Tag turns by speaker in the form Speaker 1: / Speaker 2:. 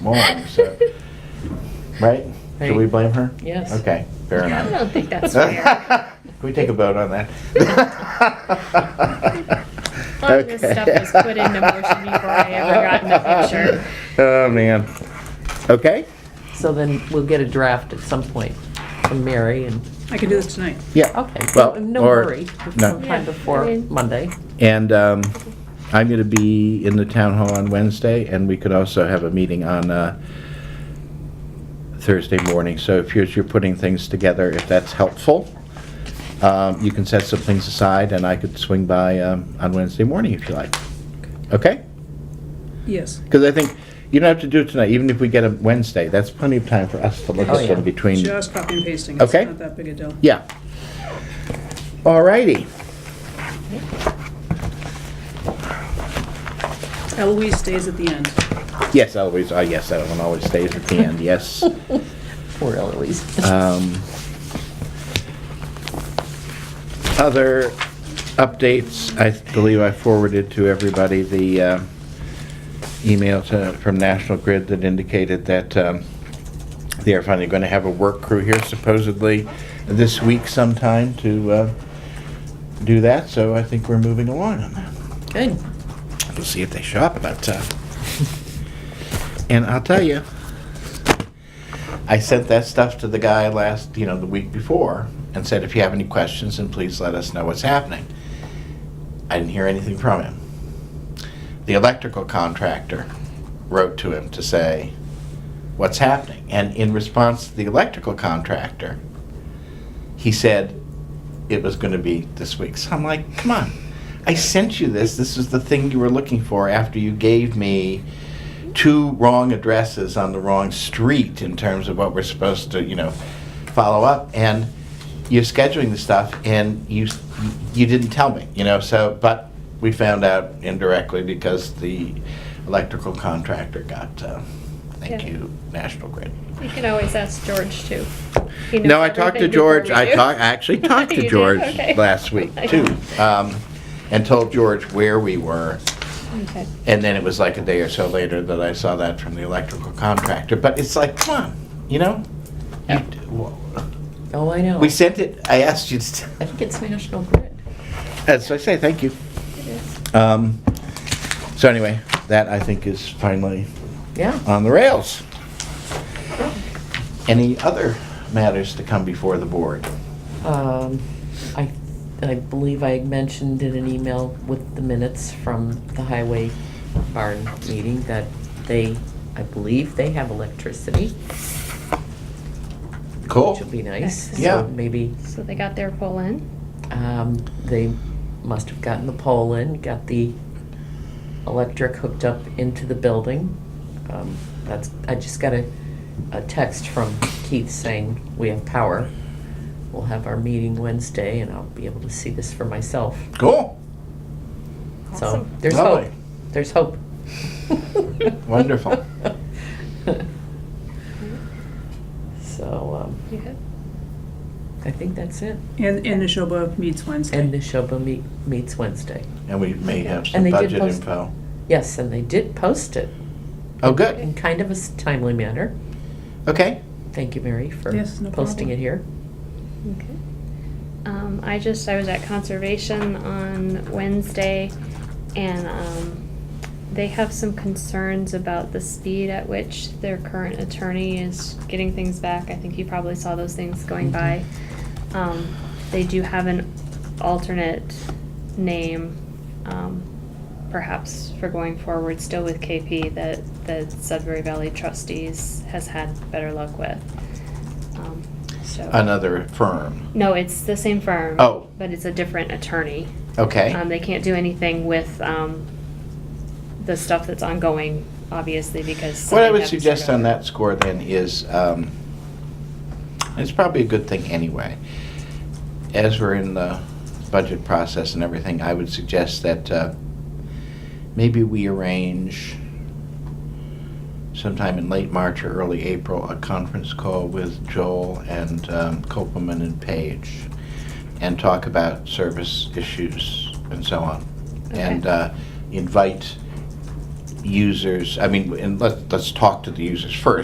Speaker 1: morning, so, right? Should we blame her?
Speaker 2: Yes.
Speaker 1: Okay, fair
Speaker 2: I
Speaker 1: enough.
Speaker 2: don't think that's fair.
Speaker 1: Can we take a vote on that?
Speaker 2: A lot of this stuff was put into motion before I ever got in the picture.
Speaker 1: Oh, man. Okay,
Speaker 3: So then we'll get a draft at some point from Mary and,
Speaker 4: I can do this tonight.
Speaker 1: yeah.
Speaker 3: okay,
Speaker 1: Well,
Speaker 3: so no
Speaker 1: or-
Speaker 3: worry.
Speaker 1: no.
Speaker 3: Sometime before
Speaker 2: Yeah, I mean-
Speaker 3: Monday.
Speaker 1: And um, I'm going to be in the town hall on Wednesday, and we could also have a meeting on uh, Thursday morning. So if you're, you're putting things together, if that's helpful, um, you can set some things aside, and I could swing by um, on Wednesday morning if you like. Okay?
Speaker 4: Yes.
Speaker 1: Because I think you don't have to do it tonight, even if we get a Wednesday. That's plenty of time for us to look
Speaker 3: Oh,
Speaker 1: at
Speaker 3: yeah.
Speaker 1: them between.
Speaker 4: Just copy and pasting. It's
Speaker 1: Okay.
Speaker 4: not that big a deal.
Speaker 1: Yeah. All righty.
Speaker 4: Eloise stays at the end.
Speaker 1: Yes, always. Uh, yes, that one always stays at the end. Yes.
Speaker 3: Poor Eloise.
Speaker 1: Um, Other updates, I believe I forwarded to everybody the uh, email to- from National Grid that indicated that um, they are finally going to have a work crew here supposedly this week sometime to uh, do that, so I think we're moving along on that.
Speaker 3: Good.
Speaker 1: We'll see if they show up, but, uh, and I'll tell you, I sent that stuff to the guy last, you know, the week before, and said, if you have any questions, then please let us know what's happening. I didn't hear anything from him. The electrical contractor wrote to him to say, what's happening? And in response to the electrical contractor, he said it was going to be this week. So I'm like, come on. I sent you this. This is the thing you were looking for after you gave me two wrong addresses on the wrong street in terms of what we're supposed to, you know, follow up. And you're scheduling the stuff and you you didn't tell me, you know, so but we found out indirectly because the electrical contractor got uh, thank
Speaker 2: Yeah.
Speaker 1: you, National Grid.
Speaker 2: You can always ask George too. He knows
Speaker 1: No, I talked to
Speaker 2: everything
Speaker 1: George,
Speaker 2: before we
Speaker 1: I
Speaker 2: do.
Speaker 1: talked, I actually talked
Speaker 2: You
Speaker 1: to
Speaker 2: did?
Speaker 1: George
Speaker 2: Okay.
Speaker 1: last week too, um, and told George where we were.
Speaker 2: Okay.
Speaker 1: And then it was like a day or so later that I saw that from the electrical contractor, but it's like, come on, you know? You
Speaker 2: Yeah.
Speaker 1: d- wha-
Speaker 3: Oh, I know.
Speaker 1: We sent it, I asked you to,
Speaker 3: I think it's National Grid.
Speaker 1: as I say, thank you. Um, so anyway, that I think is finally
Speaker 3: Yeah.
Speaker 1: on the rails. Any other matters to come before the board?
Speaker 3: Um, I, I believe I had mentioned in an email with the minutes from the highway barn meeting that they, I believe they have electricity,
Speaker 1: Cool.
Speaker 3: which will be nice. So
Speaker 1: Yeah.
Speaker 3: Maybe
Speaker 2: So they got their poll in.
Speaker 3: Um, they must have gotten the pole in, got the electric hooked up into the building. Um, that's, I just got a, a text from Keith saying, we have power. We'll have our meeting Wednesday and I'll be able to see this for myself.
Speaker 1: Cool.
Speaker 3: So
Speaker 2: Awesome.
Speaker 3: there's
Speaker 1: Lovely.
Speaker 3: hope, there's hope.
Speaker 1: Wonderful.
Speaker 3: So, um,
Speaker 2: You good?
Speaker 3: I think that's it.
Speaker 4: And, and Nishoba meets
Speaker 3: And
Speaker 4: Wednesday.
Speaker 3: Nishoba meet, meets Wednesday.
Speaker 1: And we may have some
Speaker 3: And they did
Speaker 1: budget
Speaker 3: post-
Speaker 1: info.
Speaker 3: Yes, and they did post it
Speaker 1: Oh, good.
Speaker 3: in kind of a s- timely manner.
Speaker 1: Okay.
Speaker 3: Thank you, Mary, for
Speaker 4: Yes, no
Speaker 3: posting
Speaker 4: problem.
Speaker 3: it here.
Speaker 2: Okay. Um, I just, I was at conservation on Wednesday and, um, they have some concerns about the speed at which their current attorney is getting things back. I think you probably saw those things going by. Um, they do have an alternate name, um, perhaps for going forward still with KP that, that Sudbury Valley trustees has had better luck with. Um, So.
Speaker 1: Another firm.
Speaker 2: No, it's the same firm.
Speaker 1: Oh.
Speaker 2: But it's a different attorney. Um,
Speaker 1: Okay.
Speaker 2: they can't do anything with, um, the stuff that's ongoing, obviously, because.
Speaker 1: What I
Speaker 2: they
Speaker 1: would
Speaker 2: haven't
Speaker 1: suggest
Speaker 2: sort of-
Speaker 1: on that score then is, um, it's probably a good thing anyway. As we're in the budget process and everything, I would suggest that uh, maybe we arrange sometime in late March or early April, a conference call with Joel and um, Copelman and Page and talk about service issues and so on.
Speaker 2: Okay.
Speaker 1: And uh, invite users, I mean, and let, let's talk to the users first.